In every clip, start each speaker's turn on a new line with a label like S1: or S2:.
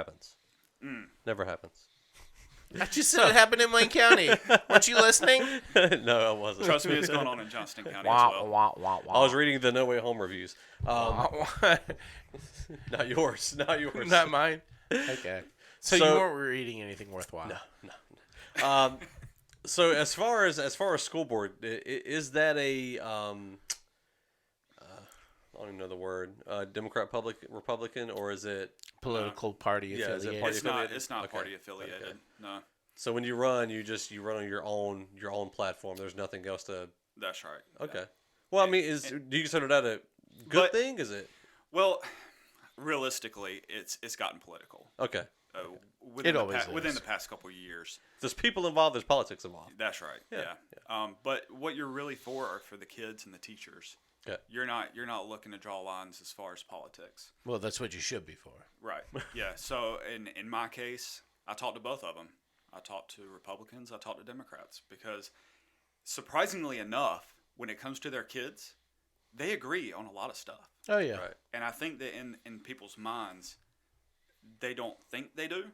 S1: happens.
S2: Hmm.
S1: Never happens.
S3: I just said it happened in Wayne County. Weren't you listening?
S1: no, I wasn't.
S2: Trust me, it's going on in Johnston County as
S3: Wah,
S2: well.
S3: wah, wah, wah.
S1: I was reading the No Way Home reviews.
S2: Uh-huh.
S1: Um, not yours. Not yours.
S3: Not mine. Okay. So,
S1: So-
S3: you weren't reading anything worthwhile.
S1: um, so as far as as far as school board, i- i- is that a um, uh, I don't even know the word uh, Democrat, public, Republican, or is it?
S3: Political party
S1: Yeah, is it
S3: affiliated.
S1: party-
S2: It's not.
S1: affiliated?
S2: It's not
S1: Okay.
S2: party affiliated.
S1: Okay.
S2: No,
S1: So when you run, you just you run on your own your own platform. There's nothing else to.
S2: that's right.
S1: Okay. Well, I mean, is do you consider that a good
S2: But-
S1: thing? Is it
S2: Well, realistically, it's it's gotten political.
S1: okay?
S2: Uh, within,
S3: It
S2: the
S3: always
S2: pa- within
S3: is.
S2: the past couple of years.
S1: There's people involved. There's politics involved.
S2: That's right. Yeah. Um, but what you're really for are for the kids and the teachers.
S1: Okay.
S2: You're not you're not looking to draw lines as far as politics.
S3: Well, that's what you should be for.
S2: Right. Yeah. So in in my case, I talked to both of them. I talked to Republicans. I talked to Democrats because, surprisingly enough, when it comes to their kids, they agree on a lot of stuff.
S3: Oh yeah.
S1: Right.
S2: And I think that in in people's minds, they don't think they do,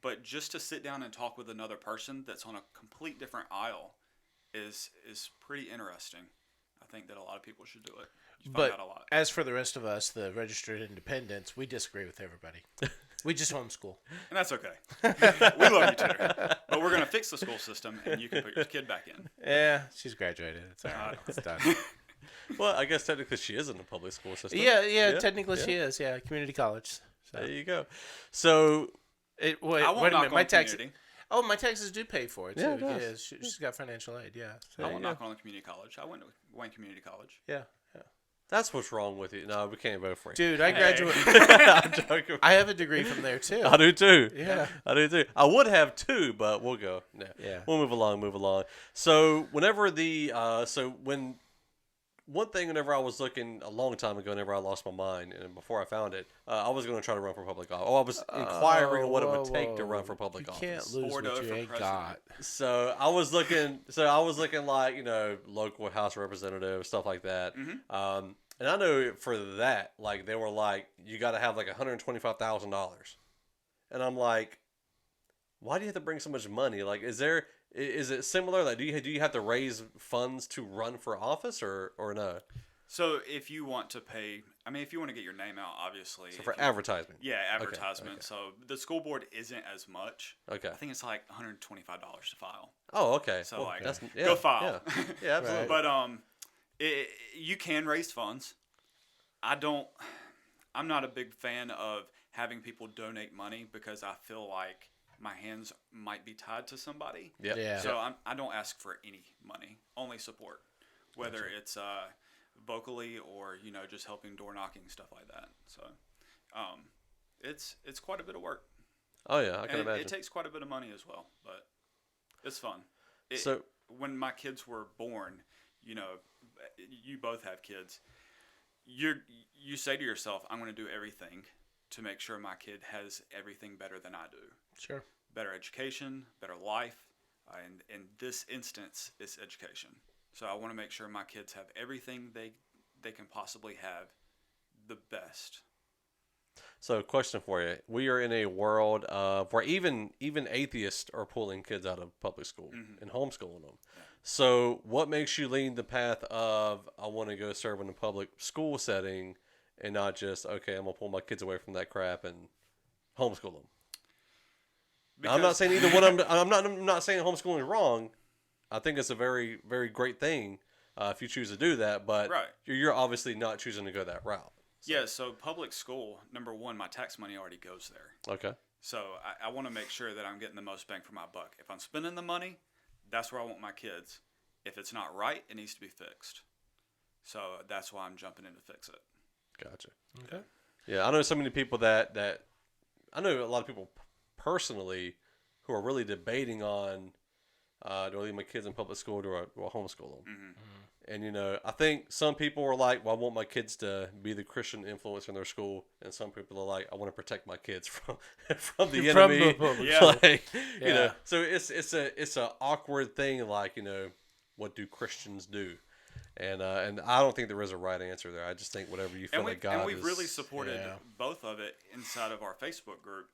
S2: but just to sit down and talk with another person that's on a complete different aisle is is pretty interesting. I think that a lot of people should do it. You find
S3: But
S2: out a lot.
S3: as for the rest of us, the registered independents, we disagree with everybody. we just homeschool.
S2: And that's okay. we love you too. But we're going to fix the school system and you can put your kid back in.
S3: Yeah, she's graduated. It's all right. It's done.
S1: Well, I guess technically she is in the public school system.
S3: yeah, yeah, Technically,
S1: yeah.
S3: she is. Yeah, community college.
S1: There
S3: So
S1: you go. So
S3: it, wait,
S2: I won't
S3: wait a
S2: knock
S3: minute.
S2: on
S3: My taxes.
S2: community.
S3: Oh, my taxes do pay for it too.
S1: Yeah,
S3: Yeah,
S1: it does.
S3: she, she's got financial aid. Yeah. So,
S2: I won't
S3: yeah.
S2: knock on the community college. I went to Wayne Community College.
S3: yeah. yeah.
S1: that's what's wrong with you. No, we can't vote for you.
S3: Dude, I graduated.
S1: I'm joking.
S3: I have a degree from there too.
S1: I do too.
S3: Yeah.
S1: I do too. I would have two, but we'll go. No.
S3: Yeah.
S1: We'll move along, move along. So whenever the uh so when one thing whenever I was looking a long time ago, whenever I lost my mind and before I found it, uh, I was gonna try to run for public office. Oh, I was inquiring
S3: Oh,
S1: what it
S3: whoa,
S1: would take to
S3: whoa.
S1: run for public
S3: you
S1: office.
S3: can't lose
S2: Or
S3: what
S2: to
S3: you
S2: vote for
S3: ain't
S2: president.
S3: got.
S1: So I was looking. So I was looking like you know local house representative stuff like that.
S2: Mm-hmm.
S1: Um, and I know for that, like they were like, you got to have like one hundred twenty five thousand dollars, and I'm like, why do you have to bring so much money? Like, is there i- is it similar? Like, do you do you have to raise funds to run for office or or no?
S2: So if you want to pay, I mean, if you want to get your name out, obviously.
S1: So for
S2: if you-
S1: advertisement,
S2: yeah,
S1: okay,
S2: advertisement. So the school board isn't as much.
S1: Okay.
S2: I think it's like $125 to file.
S1: Oh, okay.
S2: So
S1: Well,
S2: like,
S1: that's- yeah,
S2: go file.
S1: Yeah, yeah absolutely.
S2: But um, it, you can raise funds. I don't. I'm not a big fan of having people donate money because I feel like my hands might be tied to somebody.
S1: Yeah.
S3: Yeah.
S2: So I'm, I don't ask for any money, only support, whether it's uh, vocally or you know just helping door knocking stuff like that. So, um, it's it's quite a bit of work.
S1: Oh yeah, I can
S2: And it,
S1: imagine.
S2: it takes quite a bit of money as well, but it's fun. It-
S1: So-
S2: when my kids were born, you know, you both have kids. You you say to yourself, I'm going to do everything to make sure my kid has everything better than I do,
S3: Sure.
S2: better education, better life, uh, and in this instance, it's education. So I want to make sure my kids have everything they they can possibly have, the best.
S1: So, question for you: We are in a world of where even even atheists are pulling kids out of public school
S2: Mm-hmm.
S1: and homeschooling them. So, what makes you lean the path of I want to go serve in a public school setting and not just okay, I'm gonna pull my kids away from that crap and homeschool them? Now, I'm not
S2: Because-
S1: saying either what I'm I'm not I'm not saying homeschooling is wrong. I think it's a very very great thing uh, if you choose to do that, but
S2: Right.
S1: you're, you're obviously not choosing to go that route.
S2: Yeah, so public school, number one, my tax money already goes there.
S1: Okay.
S2: So I, I want to make sure that I'm getting the most bang for my buck. If I'm spending the money, that's where I want my kids. If it's not right, it needs to be fixed. So that's why I'm jumping in to fix it.
S1: Gotcha. Okay. Yeah, I know so many people that that I know a lot of people p- personally who are really debating on uh, do I leave my kids in public school or do I, do I homeschool them?
S3: Mm-hmm.
S1: And you know, I think some people are like, "Well, I want my kids to be the Christian influence in their school," and some people are like, "I want to protect my kids from from the
S3: From
S1: enemy."
S3: the public
S2: Yeah.
S1: Like, you know,
S3: Yeah.
S1: so it's it's a it's a awkward thing. Like you know, what do Christians do? And uh, and I don't think there is a right answer there. I just think whatever you feel
S2: and we
S1: like God
S2: and we've
S1: is-
S2: really supported
S3: yeah.
S2: both of it inside of our Facebook group.